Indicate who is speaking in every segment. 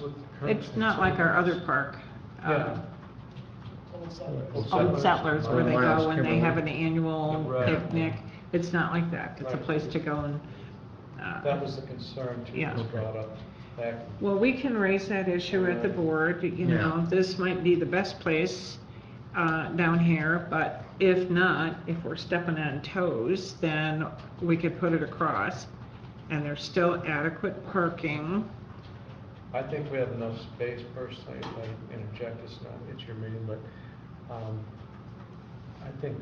Speaker 1: what the current.
Speaker 2: It's not like our other park. uh,
Speaker 1: Yeah.
Speaker 3: Old settlers.
Speaker 1: Old
Speaker 2: Old Settlers, where they go when they have an annual
Speaker 1: Right.
Speaker 2: picnic. It's not like that. It's a
Speaker 1: Right.
Speaker 2: place to go and, uh,
Speaker 1: That was the concern too,
Speaker 2: Yeah.
Speaker 1: was brought up back.
Speaker 2: Well, we can raise that issue at the board, you know, this might be the best place uh, down here, but if not, if we're stepping on toes, then we could put it across, and there's still adequate parking.
Speaker 1: I think we have enough space personally, if I interject, it's not, it's your meeting, but, um, I think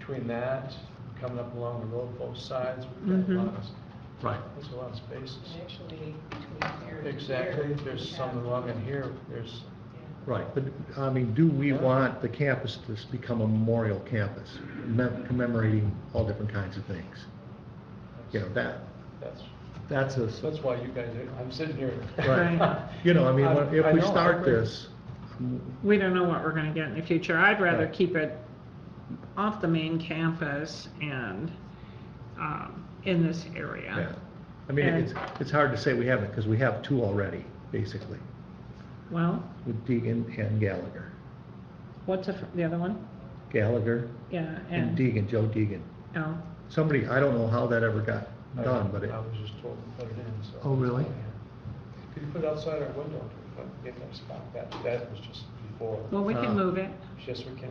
Speaker 1: between that, coming up along the road both sides, we've got
Speaker 2: Mm-hmm.
Speaker 1: a lot of,
Speaker 4: Right.
Speaker 1: there's a lot of spaces.
Speaker 3: And actually, between here and here.
Speaker 1: Exactly,
Speaker 3: we
Speaker 1: there's
Speaker 3: have-
Speaker 1: some along in here, there's,
Speaker 3: yeah.
Speaker 4: Right, but, I mean, do we want the campus to s- become a memorial campus, mem- commemorating all different kinds of things? You know, that,
Speaker 1: that's,
Speaker 4: that's a,
Speaker 1: that's why you guys, are- I'm sitting here.
Speaker 4: right, you know, I mean, when-
Speaker 1: I- I
Speaker 4: if we
Speaker 1: know, I
Speaker 4: start
Speaker 1: agree.
Speaker 4: this,
Speaker 2: We don't know what we're gonna get in the future. I'd rather
Speaker 4: Right.
Speaker 2: keep it off the main campus and um, in this
Speaker 4: yeah.
Speaker 2: area.
Speaker 4: I mean,
Speaker 2: And-
Speaker 4: it's, it's hard to say we haven't, because we have two already, basically,
Speaker 2: Well,
Speaker 4: with Deegan and Gallagher.
Speaker 2: what's the fir- the other one?
Speaker 4: Gallagher
Speaker 2: Yeah,
Speaker 4: and
Speaker 2: and,
Speaker 4: Deegan, Joe Deegan.
Speaker 2: oh,
Speaker 4: Somebody, I don't know how that ever got
Speaker 1: I-
Speaker 4: done, but it,
Speaker 1: I was just told to put it in, so.
Speaker 4: Oh, really?
Speaker 1: Yeah. Could you put it outside our window, but if I spot that, that was just before,
Speaker 2: well, we
Speaker 4: Uh,
Speaker 2: can move it.
Speaker 1: yes, we can.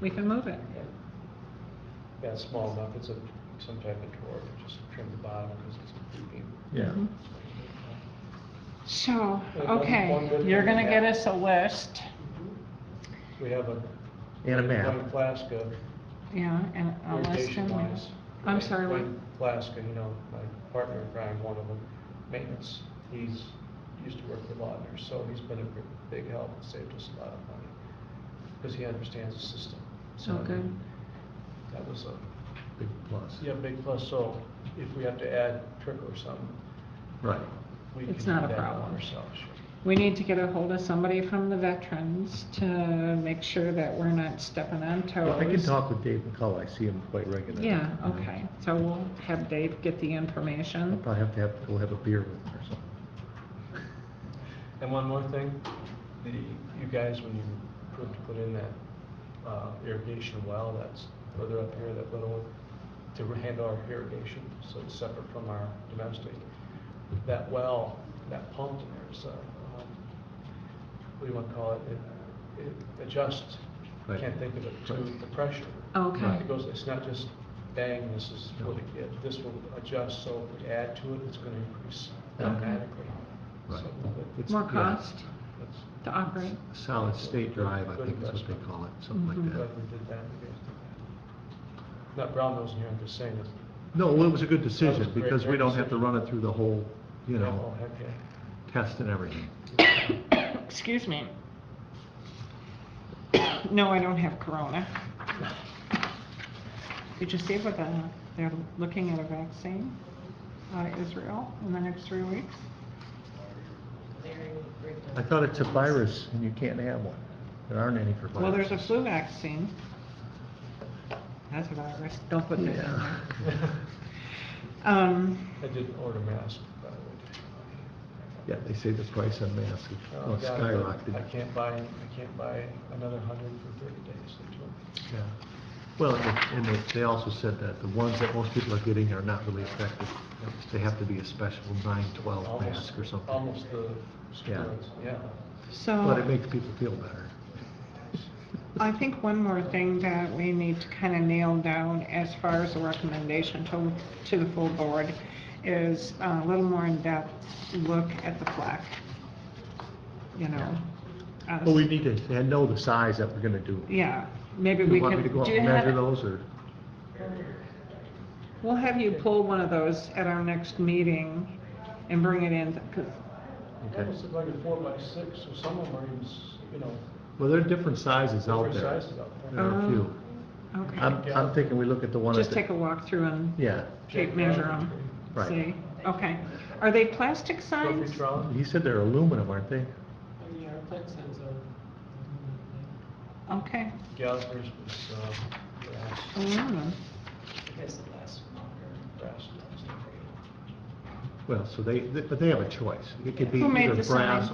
Speaker 2: We can move it.
Speaker 1: Yeah. Yeah, it's small enough, it's a, some type of drawer, but just trim the bottom, because it's creepy.
Speaker 4: yeah.
Speaker 2: Mhm. So,
Speaker 1: Like one- one
Speaker 2: okay,
Speaker 1: good
Speaker 2: you're
Speaker 1: thing
Speaker 2: gonna
Speaker 1: we
Speaker 2: get
Speaker 1: have.
Speaker 2: us a list,
Speaker 1: We have a.
Speaker 4: And a map.
Speaker 1: Wayne Plaska,
Speaker 2: yeah, and a list
Speaker 1: irrigation
Speaker 2: and
Speaker 1: wise.
Speaker 2: I'm sorry, what?
Speaker 1: Wayne Plaska, you know, my partner, Brian, one of them, maintenance, he's, used to work for Laudner, so he's been a gr- big help, and saved us a lot of money, because he understands the system. So, I
Speaker 2: Okay.
Speaker 1: mean, That was a,
Speaker 4: Big plus.
Speaker 1: yeah, big plus, so if we have to add trick or something,
Speaker 4: Right.
Speaker 1: we can
Speaker 2: It's
Speaker 1: do
Speaker 2: not a
Speaker 1: that
Speaker 2: problem.
Speaker 1: on ourselves, sure.
Speaker 2: We need to get a hold of somebody from the veterans to make sure that we're not stepping on toes.
Speaker 4: I can talk with Dave McCullough, I see him quite regularly.
Speaker 2: Yeah, okay, so we'll have Dave get the
Speaker 4: I'll
Speaker 2: information.
Speaker 4: probably have to have, we'll have a beer with him or something.
Speaker 1: And one more thing, the, you guys, when you approved to put in that uh, irrigation well, that's further up here, that little one, to handle our irrigation, so it's separate from our domestic. That well, that pump in there is, uh, um, what do you want to call it? It- It adjusts, I
Speaker 4: Right.
Speaker 1: can't think of it, to
Speaker 4: Right.
Speaker 1: the pressure.
Speaker 2: Okay,
Speaker 1: It goes, it's not just bang, this is what it gets, this will adjust, so if we add to it, it's gonna increase
Speaker 4: Okay.
Speaker 1: automatically.
Speaker 4: Right.
Speaker 1: So, but
Speaker 4: It's-
Speaker 2: more
Speaker 4: yeah,
Speaker 2: cost
Speaker 1: that's-
Speaker 2: to operate,
Speaker 4: Solid State Drive, I think is what they call it, something
Speaker 2: Mm-hmm.
Speaker 4: like
Speaker 1: Glad
Speaker 4: that.
Speaker 1: we did that, we guys did that. Not brown nosing here, I'm just saying it's.
Speaker 4: No, well, it was a good
Speaker 1: That was
Speaker 4: decision,
Speaker 1: a great,
Speaker 4: because we
Speaker 1: great
Speaker 4: don't have to
Speaker 1: decision.
Speaker 4: run it through the whole, you
Speaker 1: Oh,
Speaker 4: know,
Speaker 1: heck yeah.
Speaker 4: test and everything.
Speaker 2: excuse me. No, I don't have corona. Did you see what the, they're looking at a vaccine out of Israel in the next three weeks?
Speaker 3: Larry would break down.
Speaker 4: I thought it's a virus and you can't have one. There aren't any for viruses.
Speaker 2: Well, there's a flu vaccine. That's a virus, don't put that in
Speaker 4: Yeah.
Speaker 2: there. Um,
Speaker 1: I did order masks, by the way.
Speaker 4: Yeah, they say the price on masks is-
Speaker 1: Oh,
Speaker 4: oh,
Speaker 1: God, but I
Speaker 4: skyrocketed.
Speaker 1: can't buy, I can't buy another hundred for thirty days, they told me.
Speaker 4: Yeah. Well, and it- and it- they also said that the ones that most people are getting are not really effective. They have to be a special nine, twelve
Speaker 1: Almost-
Speaker 4: mask or something.
Speaker 1: Almost the steroids, yeah.
Speaker 2: so.
Speaker 4: But it makes people feel better.
Speaker 2: I think one more thing that we need to kind of nail down as far as the recommendation to, to the full board is a little more in-depth look at the plaque. You know? uh,
Speaker 4: Well, we need to and know the size that we're gonna do.
Speaker 2: Yeah, maybe
Speaker 4: You
Speaker 2: we
Speaker 4: want me to go
Speaker 2: could,
Speaker 4: out
Speaker 2: do you
Speaker 4: and measure
Speaker 2: have,
Speaker 4: those, or?
Speaker 2: we'll have you pull one of those at our next meeting and bring it in, 'cause-
Speaker 4: Okay.
Speaker 1: That was like a four by six, so some of them are even, s- you know,
Speaker 4: Well, there are different sizes out
Speaker 1: different
Speaker 4: there.
Speaker 1: sizes out
Speaker 4: There
Speaker 1: there.
Speaker 4: are a few.
Speaker 2: okay.
Speaker 4: I'm, I'm thinking we look at the one at
Speaker 2: Oh. Just
Speaker 4: the,
Speaker 2: take a walk through and
Speaker 4: yeah.
Speaker 2: tape measure them,
Speaker 4: Right.
Speaker 2: see? Okay. Are they plastic
Speaker 1: Trophy
Speaker 2: signs?
Speaker 1: trolley.
Speaker 4: He said they're aluminum, aren't they?
Speaker 3: Yeah, our plaque signs are.
Speaker 2: Okay.
Speaker 1: Gallagher's was, um, brass,
Speaker 2: Aluminum.
Speaker 3: Because the last one.
Speaker 1: brass. brass.
Speaker 2: Well, so they, but they have a choice. It could be
Speaker 4: Who made
Speaker 2: either
Speaker 4: the sign?
Speaker 2: brass